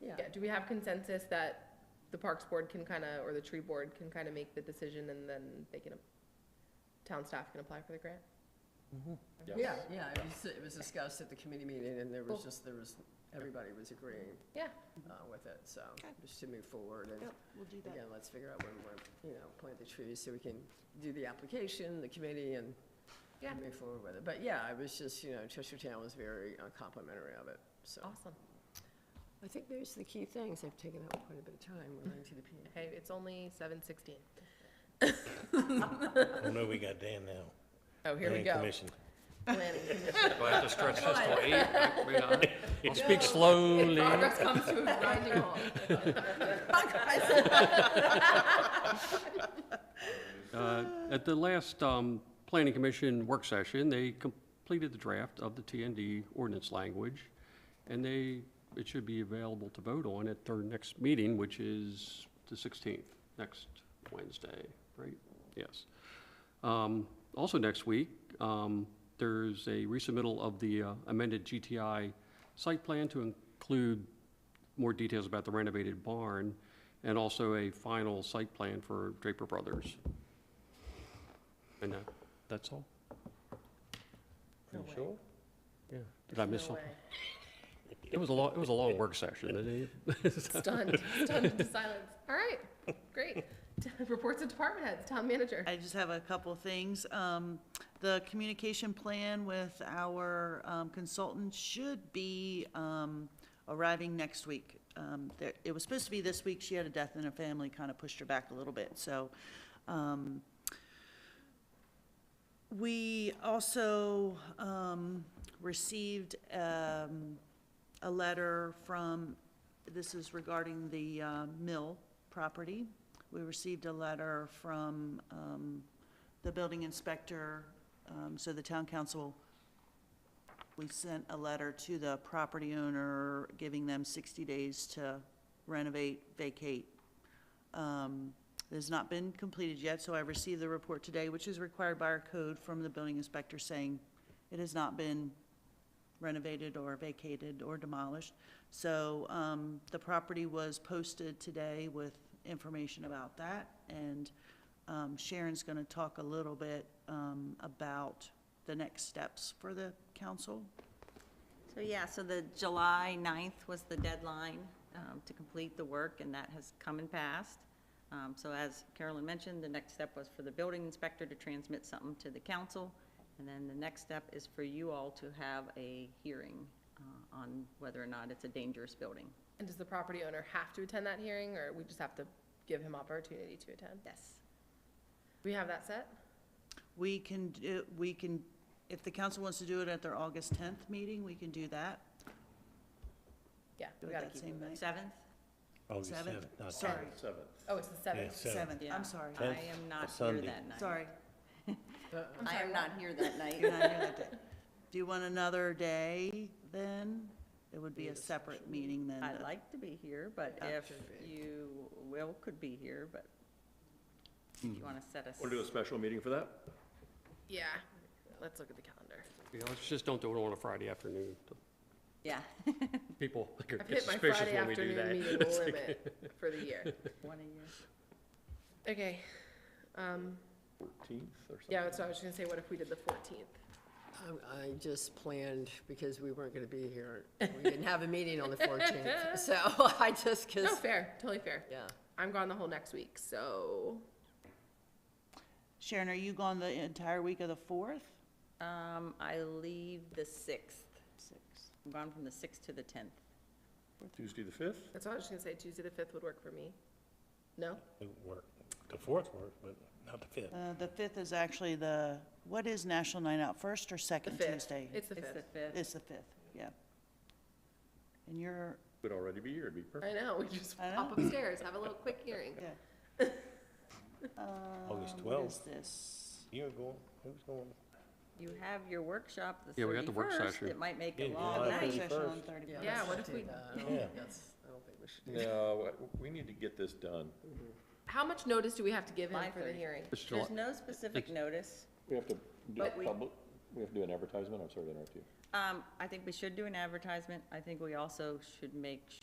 Yeah. Yeah, do we have consensus that the Parks Board can kind of, or the Tree Board can kind of make the decision and then they can, town staff can apply for the grant? Yeah, yeah, it was, it was discussed at the committee meeting, and there was just, there was, everybody was agreeing. Yeah. uh, with it, so, Okay. just to move forward, and Yep, we'll do that. again, let's figure out when we're, you know, plant the trees, so we can do the application, the committee, and Yeah. move forward with it, but yeah, I was just, you know, Cheshire Town was very uh, complimentary of it, so. Awesome. Oh, I think there's the key things, I've taken up quite a bit of time relating to the P. Hey, it's only seven sixteen. Oh, no, we got Dan now. Oh, here we Dan go. Commission. Planning Commission. Do I have to stretch this till eight? Like, we not- I'll speak slowly. Progress comes to a grinding halt. Uh, At the last um, Planning Commission work session, they completed the draft of the TND ordinance language, and they, it should be available to vote on at their next meeting, which is the 16th, next Wednesday, right? Yes. Um, Also next week, um, there's a resubmittal of the uh, amended GTI site plan to include more details about the renovated barn, and also a final site plan for Draper Brothers. And that, that's all? You sure? Yeah. Did I miss something? It was a long, it was a long work session. Stunned, stunned into silence. All right, great. Reports of department heads, town manager. I just have a couple things. Um, The communication plan with our um, consultant should be um, arriving next week. Um, there- It was supposed to be this week, she had a death in her family, kind of pushed her back a little bit, so. um, We also um, received um, a letter from, this is regarding the uh, mill property. We received a letter from um, the building inspector, um, so the town council, we sent a letter to the property owner, giving them 60 days to renovate, vacate. Um, It has not been completed yet, so I received the report today, which is required by our code from the building inspector saying it has not been renovated or vacated or demolished. So um, the property was posted today with information about that. And um, Sharon's going to talk a little bit um, about the next steps for the council. So yeah, so the July 9th was the deadline um, to complete the work, and that has come and passed. Um, So as Carolyn mentioned, the next step was for the building inspector to transmit something to the council, and then the next step is for you all to have a hearing uh, on whether or not it's a dangerous building. And does the property owner have to attend that hearing or we just have to give him opportunity to attend? Yes. We have that set? We can, do- we can, if the council wants to do it at their August 10th meeting, we can do that. Yeah, Do we it gotta that keep same moving. night. 7th? August Seventh. 7th. not Sorry. 10th, 7th. Oh, it's the Yeah, seventh. 7th. 7th, Yeah. I'm sorry. I Tenth, am not here Sunday. that night. Sorry. I am not here that night. You're not here that day. Do you want another day then? It would be a separate meeting then. I'd the- like to be here, but Yeah. if you, Will could be here, but if Hmm. you want to set us. Want to do a special meeting for that? Yeah, let's look at the calendar. Yeah, let's just don't do it on a Friday afternoon. Yeah, People are I've gonna get hit my suspicious Friday when we do afternoon that. meeting It's like- limit for the year. one a year. Okay, um, 14th or something? yeah, that's what I was just gonna say, what if we did the fourteenth? Um, I just planned, because we weren't gonna be here, we didn't have a meeting on the fourteenth, so I just, No, cause, Oh, fair, totally fair. yeah. I'm gone the whole next week, so Sharon, are you gone the entire week of the 4th? Um, I leave the sixth. I'm gone from the sixth to the tenth. Tuesday, the 5th? that's what I was just gonna say, Tuesday the fifth would work for me. No? It worked. The 4th worked, but not the 5th. Uh, The 5th is actually the, what is National Night Out, first or The second fifth, Tuesday? it's the It's the fifth. fifth. It's the 5th, yeah. And you're, Would already be here, it'd be perfect. I know, we just I pop upstairs, have a little quick hearing. yeah. August Um, What is 12th. this? You're going, who's going? You have your workshop the Yeah, we got the work thirty-first. session. It might make Yeah, a you long have the night. work- Session on 31st. 31st. Yeah, let's what if do we- that. I don't Yeah. think that's- I don't think we should do that. No, we need to get this done. How much notice do we have to give him for the 5:30. hearing? It's July- There's no specific notice. We have to do a But we- public, we have to do an advertisement, I'm sorry to interrupt you. Um, I think we should do an advertisement. I think we also should make